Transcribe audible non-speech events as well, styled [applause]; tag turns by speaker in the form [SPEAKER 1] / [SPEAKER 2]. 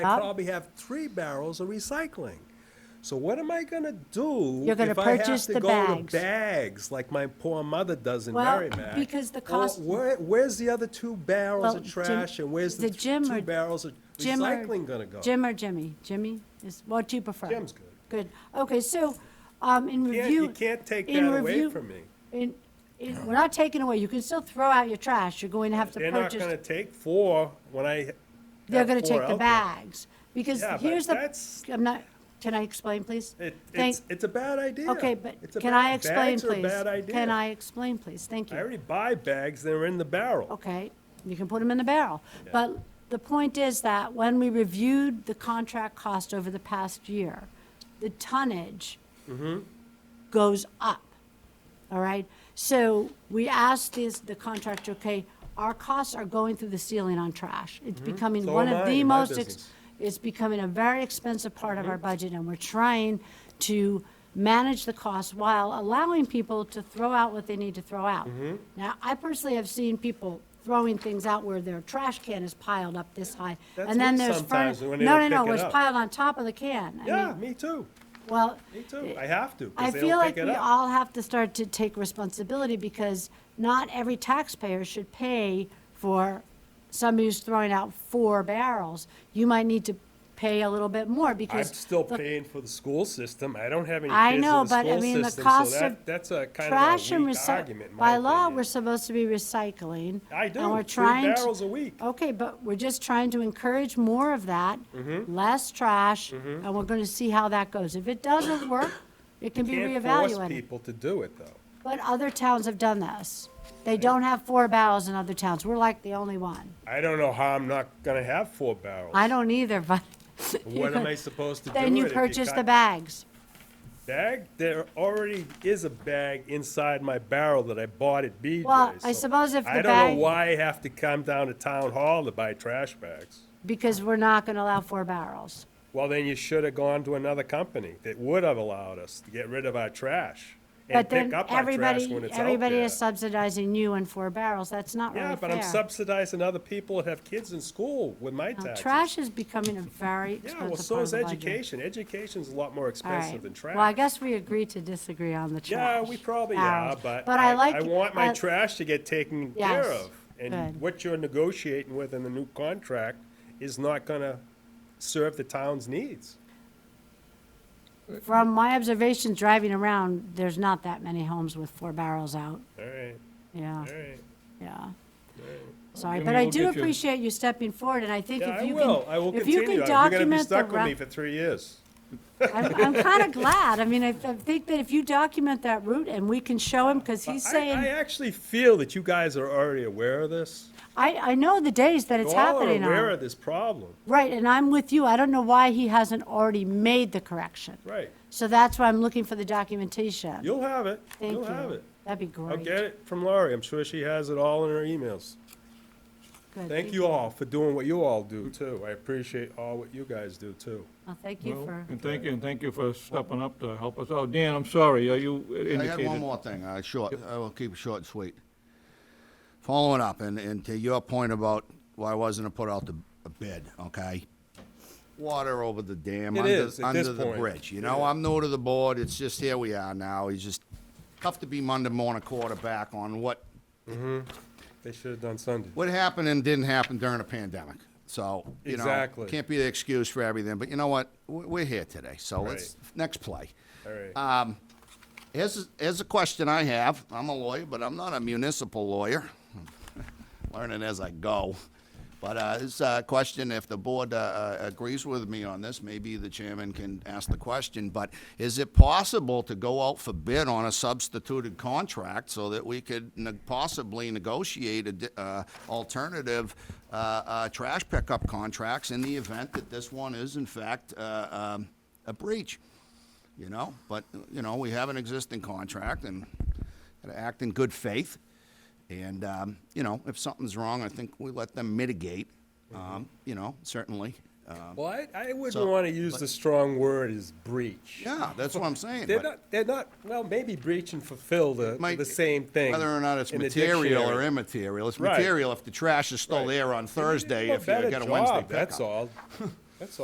[SPEAKER 1] I probably have three barrels of recycling. So what am I gonna do?
[SPEAKER 2] You're gonna
[SPEAKER 1] if I have
[SPEAKER 2] purchase
[SPEAKER 1] to
[SPEAKER 2] the
[SPEAKER 1] go to
[SPEAKER 2] bags.
[SPEAKER 1] Bags, like my poor mother does in
[SPEAKER 2] Well,
[SPEAKER 1] Merrimack.
[SPEAKER 2] because the
[SPEAKER 1] Or
[SPEAKER 2] cost-
[SPEAKER 1] Where, where's the other two barrels
[SPEAKER 2] Well,
[SPEAKER 1] of
[SPEAKER 2] Jim-
[SPEAKER 1] trash and where's the
[SPEAKER 2] the
[SPEAKER 1] th-
[SPEAKER 2] Jim
[SPEAKER 1] two
[SPEAKER 2] or-
[SPEAKER 1] barrels of
[SPEAKER 2] Jim or-
[SPEAKER 1] recycling gonna go?
[SPEAKER 2] Jim or Jimmy? Jimmy is, what do you prefer?
[SPEAKER 1] Jim's good.
[SPEAKER 2] Good. Okay, so, um, in
[SPEAKER 1] You
[SPEAKER 2] review.
[SPEAKER 1] can't- you can't take
[SPEAKER 2] in
[SPEAKER 1] that away
[SPEAKER 2] review-
[SPEAKER 1] from me.
[SPEAKER 2] in- in- we're not taking away, you can still throw out your trash, you're going to have to
[SPEAKER 1] They're not gonna
[SPEAKER 2] purchase,
[SPEAKER 1] take four when I. have
[SPEAKER 2] they're gonna
[SPEAKER 1] four
[SPEAKER 2] take
[SPEAKER 1] out there.
[SPEAKER 2] the bags. Because
[SPEAKER 1] Yeah, but
[SPEAKER 2] here's the,
[SPEAKER 1] that's-
[SPEAKER 2] I'm not, can I explain, please?
[SPEAKER 1] Oh, It,
[SPEAKER 2] Thank-
[SPEAKER 1] it's, it's a bad idea.
[SPEAKER 2] Okay, but
[SPEAKER 1] It's a
[SPEAKER 2] can
[SPEAKER 1] bad-
[SPEAKER 2] I explain,
[SPEAKER 1] Bags are a
[SPEAKER 2] please?
[SPEAKER 1] bad idea.
[SPEAKER 2] Can I explain, please? Thank you.
[SPEAKER 1] I already buy bags, they're in the barrel.
[SPEAKER 2] Okay, you can put them in the barrel. But the point is that when we reviewed the contract cost over the past year, the tonnage goes up, all right? So we asked this, the contractor, okay, our costs are going through the ceiling on trash. It's becoming
[SPEAKER 1] Mm-hmm. So
[SPEAKER 2] one
[SPEAKER 1] am
[SPEAKER 2] of
[SPEAKER 1] I
[SPEAKER 2] the
[SPEAKER 1] in my
[SPEAKER 2] most, ex-
[SPEAKER 1] business. Mm-hmm.
[SPEAKER 2] it's becoming a very expensive part of our budget, and we're trying to manage the cost while allowing people to throw out what they need to throw out.
[SPEAKER 1] Mm-hmm.
[SPEAKER 2] Now, I personally have seen people throwing things out where their trash can is piled up this high,
[SPEAKER 1] That's
[SPEAKER 2] and then
[SPEAKER 1] me
[SPEAKER 2] there's
[SPEAKER 1] sometimes
[SPEAKER 2] furni-
[SPEAKER 1] when they
[SPEAKER 2] No, no,
[SPEAKER 1] don't
[SPEAKER 2] no,
[SPEAKER 1] pick it
[SPEAKER 2] it's
[SPEAKER 1] up.
[SPEAKER 2] piled on top of the can. I
[SPEAKER 1] Yeah,
[SPEAKER 2] mean,
[SPEAKER 1] me too,
[SPEAKER 2] Well,
[SPEAKER 1] me too. I have to,
[SPEAKER 2] I
[SPEAKER 1] because they
[SPEAKER 2] feel
[SPEAKER 1] don't
[SPEAKER 2] like
[SPEAKER 1] pick it
[SPEAKER 2] we
[SPEAKER 1] up.
[SPEAKER 2] all have to start to take responsibility because not every taxpayer should pay for somebody who's throwing out four barrels. You might need to pay a little bit more
[SPEAKER 1] I'm
[SPEAKER 2] because.
[SPEAKER 1] still
[SPEAKER 2] the
[SPEAKER 1] paying for the school system. I don't have any
[SPEAKER 2] I
[SPEAKER 1] kids in
[SPEAKER 2] know,
[SPEAKER 1] the
[SPEAKER 2] but I
[SPEAKER 1] school
[SPEAKER 2] mean, the
[SPEAKER 1] system, so
[SPEAKER 2] cost
[SPEAKER 1] that-
[SPEAKER 2] of
[SPEAKER 1] that's a kind
[SPEAKER 2] Trash
[SPEAKER 1] of a
[SPEAKER 2] and
[SPEAKER 1] weak argument,
[SPEAKER 2] recycling,
[SPEAKER 1] in
[SPEAKER 2] by
[SPEAKER 1] my
[SPEAKER 2] law,
[SPEAKER 1] opinion.
[SPEAKER 2] we're supposed to be recycling.
[SPEAKER 1] I do,
[SPEAKER 2] And we're
[SPEAKER 1] three
[SPEAKER 2] trying. to-
[SPEAKER 1] barrels a week.
[SPEAKER 2] Okay, but we're just trying to encourage more of that,
[SPEAKER 1] Mm-hmm.
[SPEAKER 2] less trash, and we're gonna see how that goes. If it doesn't work, it can be
[SPEAKER 1] Can't force
[SPEAKER 2] reevaluated.
[SPEAKER 1] people to do it, though.
[SPEAKER 2] But other towns have done this. They don't have four barrels in other towns. We're like the only one.
[SPEAKER 1] I don't know how I'm not gonna have four barrels.
[SPEAKER 2] I don't either, but.
[SPEAKER 1] What am I supposed to do
[SPEAKER 2] [laughs] Then you
[SPEAKER 1] with it?
[SPEAKER 2] purchase the
[SPEAKER 1] Because-
[SPEAKER 2] bags.
[SPEAKER 1] Bag? There already is a bag inside my barrel that I bought at BJ's.
[SPEAKER 2] Well, I
[SPEAKER 1] so
[SPEAKER 2] suppose if
[SPEAKER 1] I
[SPEAKER 2] the
[SPEAKER 1] don't
[SPEAKER 2] bag-
[SPEAKER 1] know why I have to come down to town hall to buy trash bags.
[SPEAKER 2] because we're not going to allow four barrels.
[SPEAKER 1] Well, then you should have gone to another company that would have allowed us to get rid of our trash and
[SPEAKER 2] But
[SPEAKER 1] pick
[SPEAKER 2] then
[SPEAKER 1] up our trash
[SPEAKER 2] everybody,
[SPEAKER 1] when it's out
[SPEAKER 2] everybody
[SPEAKER 1] there.
[SPEAKER 2] is subsidizing you in four barrels. That's not really
[SPEAKER 1] Yeah,
[SPEAKER 2] fair.
[SPEAKER 1] but I'm subsidizing other people that have kids in school with my
[SPEAKER 2] Now,
[SPEAKER 1] taxes.
[SPEAKER 2] Trash is becoming a very expensive
[SPEAKER 1] Yeah,
[SPEAKER 2] part
[SPEAKER 1] well,
[SPEAKER 2] of
[SPEAKER 1] so is
[SPEAKER 2] the budget.
[SPEAKER 1] education. Education's a lot more
[SPEAKER 2] All
[SPEAKER 1] expensive than
[SPEAKER 2] right.
[SPEAKER 1] trash.
[SPEAKER 2] Well, I guess we agree to disagree on the trash.
[SPEAKER 1] Yeah, we probably
[SPEAKER 2] barrels.
[SPEAKER 1] are, but
[SPEAKER 2] But I
[SPEAKER 1] I,
[SPEAKER 2] like.
[SPEAKER 1] I want my
[SPEAKER 2] I-
[SPEAKER 1] trash to get taken care
[SPEAKER 2] Yes,
[SPEAKER 1] of. And
[SPEAKER 2] good.
[SPEAKER 1] what you're negotiating with in the new contract is not gonna serve the town's needs.
[SPEAKER 2] From my observations driving around, there's not that many homes with four barrels out.
[SPEAKER 1] All right,
[SPEAKER 2] Yeah,
[SPEAKER 1] all right.
[SPEAKER 2] yeah. Sorry,
[SPEAKER 3] Jimmy,
[SPEAKER 2] but I
[SPEAKER 3] we'll
[SPEAKER 2] do
[SPEAKER 3] get you-
[SPEAKER 2] appreciate you stepping forward, and I think
[SPEAKER 1] Yeah,
[SPEAKER 2] if
[SPEAKER 1] I
[SPEAKER 2] you
[SPEAKER 1] will. I will
[SPEAKER 2] can, if
[SPEAKER 1] continue.
[SPEAKER 2] you
[SPEAKER 1] I-
[SPEAKER 2] can
[SPEAKER 1] You're gonna be
[SPEAKER 2] document the.
[SPEAKER 1] stuck with
[SPEAKER 2] rou-
[SPEAKER 1] me for three years.
[SPEAKER 2] I'm,
[SPEAKER 1] [laughs]
[SPEAKER 2] I'm kind of glad. I mean, I, I think that if you document that route and we can show him, because he's
[SPEAKER 1] I, I
[SPEAKER 2] saying,
[SPEAKER 1] actually feel that you guys are already aware of this.
[SPEAKER 2] I, I know the days that it's
[SPEAKER 1] You all are
[SPEAKER 2] happening
[SPEAKER 1] aware
[SPEAKER 2] on.
[SPEAKER 1] of this problem,
[SPEAKER 2] Right, and I'm with you. I don't know why he hasn't already made the correction.
[SPEAKER 1] right?
[SPEAKER 2] So that's why I'm looking for the documentation.
[SPEAKER 1] You'll have it.
[SPEAKER 2] Thank
[SPEAKER 1] You'll have
[SPEAKER 2] you.
[SPEAKER 1] it.
[SPEAKER 2] That'd be
[SPEAKER 1] I'll
[SPEAKER 2] great.
[SPEAKER 1] get it from Laurie. I'm sure she has it all in her emails.
[SPEAKER 2] Good,
[SPEAKER 1] Thank you all for doing what you all do, too. I appreciate all what you guys do, too.
[SPEAKER 2] Well, thank you
[SPEAKER 3] Well,
[SPEAKER 2] for,
[SPEAKER 3] And thank you, and thank you for stepping up to help us out. Dan, I'm sorry, uh, you indicated.
[SPEAKER 4] I had one more thing, uh, short, I will keep it short and sweet. Following up, and, and to your point about why wasn't it put out the a bid, okay? Water over the dam,
[SPEAKER 1] It
[SPEAKER 4] under,
[SPEAKER 1] is at this
[SPEAKER 4] under the
[SPEAKER 1] point.
[SPEAKER 4] bridge, you know, I'm new to the board, it's just, here we are now, he's just tough to be Monday morning quarterback on what
[SPEAKER 1] They should have done Sunday.
[SPEAKER 4] what happened and didn't happen during a pandemic. So you
[SPEAKER 1] Exactly.
[SPEAKER 4] know, can't be the excuse for everything. But you know what? We're we're here today, so let's next play.
[SPEAKER 1] All right.
[SPEAKER 4] Um, here's here's a question I have. I'm a lawyer, but I'm not a municipal lawyer. [laughs] Learning as I go. But uh, this uh, question, if the board uh, uh, agrees with me on this, maybe the chairman can ask the question. But is it possible to go out for bid on a substituted contract so that we could ne- possibly negotiate a di- uh, alternative uh, uh, trash pickup contracts in the event that this one is in fact uh, um, a breach? you know, but, you know, we have an existing contract and gotta act in good faith. And, um, you know, if something's wrong, I think we let them mitigate,
[SPEAKER 1] Mm-hmm.
[SPEAKER 4] um, you know, certainly. Um,
[SPEAKER 1] Well, I, I wouldn't
[SPEAKER 4] So-
[SPEAKER 1] want to use the strong word as breach.
[SPEAKER 4] Yeah, that's what I'm saying.
[SPEAKER 1] They're
[SPEAKER 4] but
[SPEAKER 1] not, they're not, well, maybe breach and fulfill the,
[SPEAKER 4] might-
[SPEAKER 1] the same thing.
[SPEAKER 4] Whether or not it's
[SPEAKER 1] in the
[SPEAKER 4] material or
[SPEAKER 1] dictionary.
[SPEAKER 4] immaterial, it's
[SPEAKER 1] Right.
[SPEAKER 4] material if the trash is
[SPEAKER 1] Right.
[SPEAKER 4] still there on
[SPEAKER 1] You
[SPEAKER 4] Thursday,
[SPEAKER 1] do a
[SPEAKER 4] if you
[SPEAKER 1] better
[SPEAKER 4] get a
[SPEAKER 1] job,
[SPEAKER 4] Wednesday [laughs]
[SPEAKER 1] That's
[SPEAKER 4] pickup.
[SPEAKER 1] all.